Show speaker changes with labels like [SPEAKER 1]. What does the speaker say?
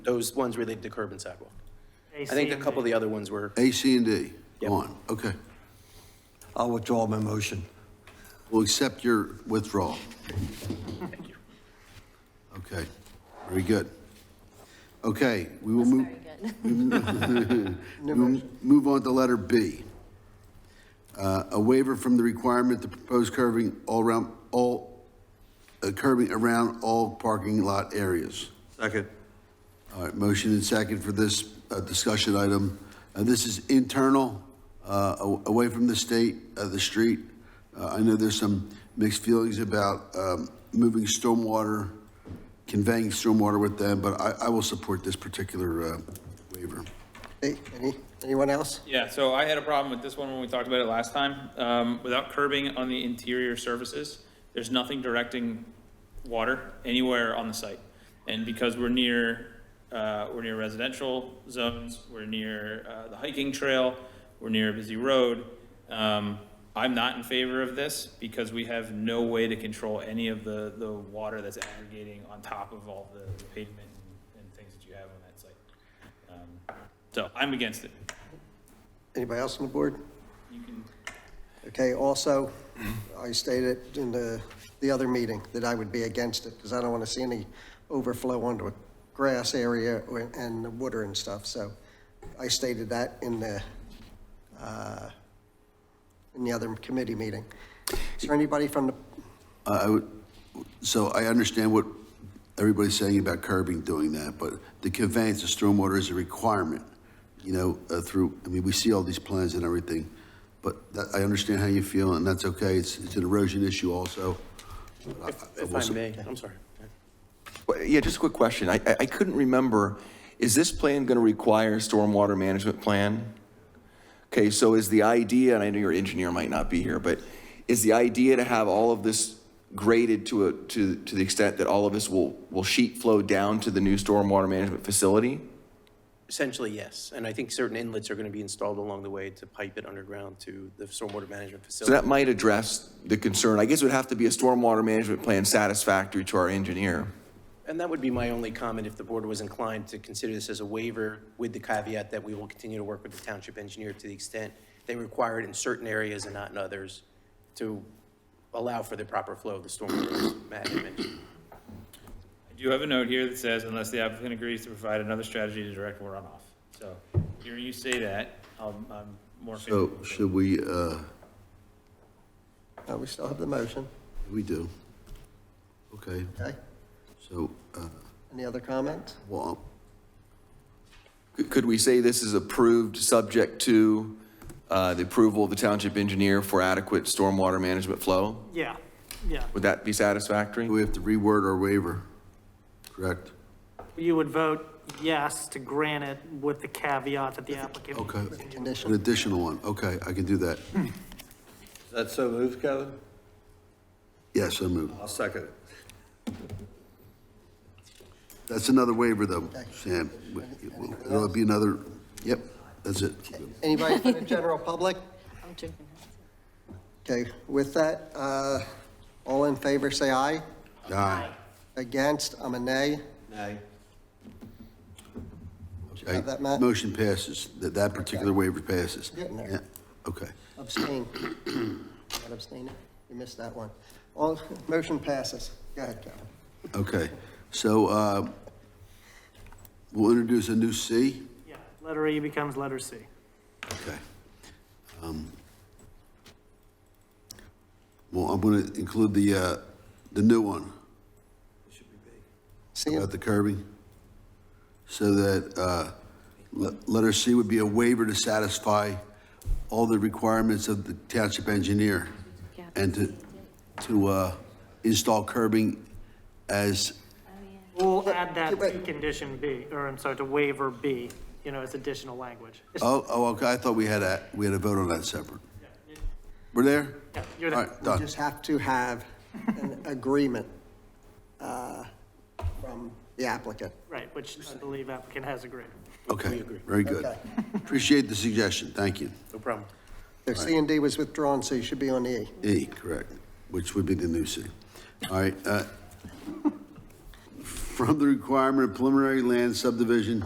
[SPEAKER 1] those ones related to curb and sidewalk.
[SPEAKER 2] I
[SPEAKER 1] I think a couple of the other ones were,
[SPEAKER 3] A, C, and D
[SPEAKER 1] Yep.
[SPEAKER 3] on, okay.
[SPEAKER 4] I'll withdraw my motion.
[SPEAKER 3] We'll accept your withdrawal. Okay, very good. Okay, we will move. We'll Move on to letter B. Uh, A waiver from the requirement to propose curving all around, all, uh, curving around all parking lot areas.
[SPEAKER 4] Second.
[SPEAKER 3] All right, motion and second for this uh, discussion item. Uh, This is internal, uh, a- away from the state, uh, the street. Uh, I know there's some mixed feelings about um, moving stormwater, conveying stormwater with them, but I I will support this particular uh, waiver.
[SPEAKER 4] Hey, any, anyone else?
[SPEAKER 5] Yeah, so I had a problem with this one when we talked about it last time. Um, without curbing on the interior surfaces, there's nothing directing water anywhere on the site. And because we're near, uh, we're near residential zones, we're near, uh, the hiking trail, we're near a busy road, um, I'm not in favor of this because we have no way to control any of the, the water that's aggregating on top of all the the pavement and things that you have on that site. Um, So I'm against it.
[SPEAKER 4] Anybody else on the board?
[SPEAKER 5] You can
[SPEAKER 4] Okay, also, I stated in the, the other meeting that I would be against it because I don't want to see any overflow onto a grass area or- and the water and stuff, so I stated that in the, uh, in the other committee meeting. Is there anybody from the,
[SPEAKER 3] I I would, so I understand what everybody's saying about curbing doing that, but the conveyance of stormwater is a requirement, you know, uh, through, I mean, we see all these plans and everything, but that, I understand how you feel, and that's okay, it's, it's an erosion issue also. but I- I
[SPEAKER 1] if
[SPEAKER 3] will
[SPEAKER 1] I
[SPEAKER 3] su-
[SPEAKER 1] may, I'm sorry.
[SPEAKER 6] Well, Yeah, just a quick question. I, I I couldn't remember, is this plan going to require a stormwater management plan? Okay, so is the idea, and I know your engineer might not be here, but is the idea to have all of this graded to a, to, to the extent that all of this will, will sheet flow down to the new stormwater management facility?
[SPEAKER 1] Essentially, yes, and I think certain inlets are going to be installed along the way to pipe it underground to the stormwater management
[SPEAKER 6] So that
[SPEAKER 1] facility.
[SPEAKER 6] might address the concern. I guess it would have to be a stormwater management plan satisfactory to our engineer.
[SPEAKER 1] And that would be my only comment if the board was inclined to consider this as a waiver with the caveat that we will continue to work with the township engineer to the extent they require it in certain areas and not in others to allow for the proper flow of the stormwater management.
[SPEAKER 5] I do have a note here that says unless the applicant agrees to provide another strategy to direct runoff. So hearing you say that, I'm, I'm more
[SPEAKER 3] So
[SPEAKER 5] favorable.
[SPEAKER 3] should we, uh,
[SPEAKER 4] uh, we still have the motion,
[SPEAKER 3] we do? Okay,
[SPEAKER 4] okay?
[SPEAKER 3] so, uh,
[SPEAKER 4] Any other comments?
[SPEAKER 3] well,
[SPEAKER 6] Could- Could we say this is approved, subject to uh, the approval of the township engineer for adequate stormwater management flow?
[SPEAKER 2] Yeah, yeah.
[SPEAKER 6] Would that be satisfactory?
[SPEAKER 3] we have to reword our waiver, correct?
[SPEAKER 2] You would vote yes to grant it with the caveat that the applicant.
[SPEAKER 3] Okay, an
[SPEAKER 4] Condition,
[SPEAKER 3] additional one, okay, I can do that.
[SPEAKER 7] That's so moved, Kevin?
[SPEAKER 3] Yes, I move.
[SPEAKER 7] I'll second it.
[SPEAKER 3] That's another waiver though, Sam. There'll be another, yep, that's it.
[SPEAKER 4] anybody from the general public?
[SPEAKER 8] I'm drinking.
[SPEAKER 4] Okay, with that, uh, all in favor, say aye.
[SPEAKER 3] Aye.
[SPEAKER 4] Against, I'm a nay.
[SPEAKER 3] Okay.
[SPEAKER 4] Have that, Matt?
[SPEAKER 3] Motion passes, that, that particular waiver passes.
[SPEAKER 4] Getting there.
[SPEAKER 3] Yeah, Okay.
[SPEAKER 4] Abstain. Not abstaining? You missed that one. All, motion passes. Go ahead, Kevin.
[SPEAKER 3] Okay, so, uh, we'll introduce a new C.
[SPEAKER 2] Yeah, letter E becomes letter C.
[SPEAKER 3] Okay. Um, Well, I'm gonna include the, uh, the new one.
[SPEAKER 4] See,
[SPEAKER 3] about the curbing? So that, uh, le- letter C would be a waiver to satisfy all the requirements of the township engineer and to, to, uh, install curbing as,
[SPEAKER 2] We'll add that to
[SPEAKER 4] Wait.
[SPEAKER 2] condition B, or I'm sorry, to waiver B, you know, as additional language. It's-
[SPEAKER 3] oh, oh, okay, I thought we had a, we had a vote on that separate. We're there?
[SPEAKER 2] yeah, You're
[SPEAKER 3] All
[SPEAKER 2] there.
[SPEAKER 3] right,
[SPEAKER 4] we
[SPEAKER 3] done.
[SPEAKER 4] just have to have an agreement uh, from the applicant.
[SPEAKER 2] Right, which I believe applicant has agreed.
[SPEAKER 3] Okay, very good. Appreciate the suggestion, thank you.
[SPEAKER 1] No problem.
[SPEAKER 4] The C and D was withdrawn, so you should be on E.
[SPEAKER 3] E, correct, which would be the new C. All right, uh, from the requirement of preliminary land subdivision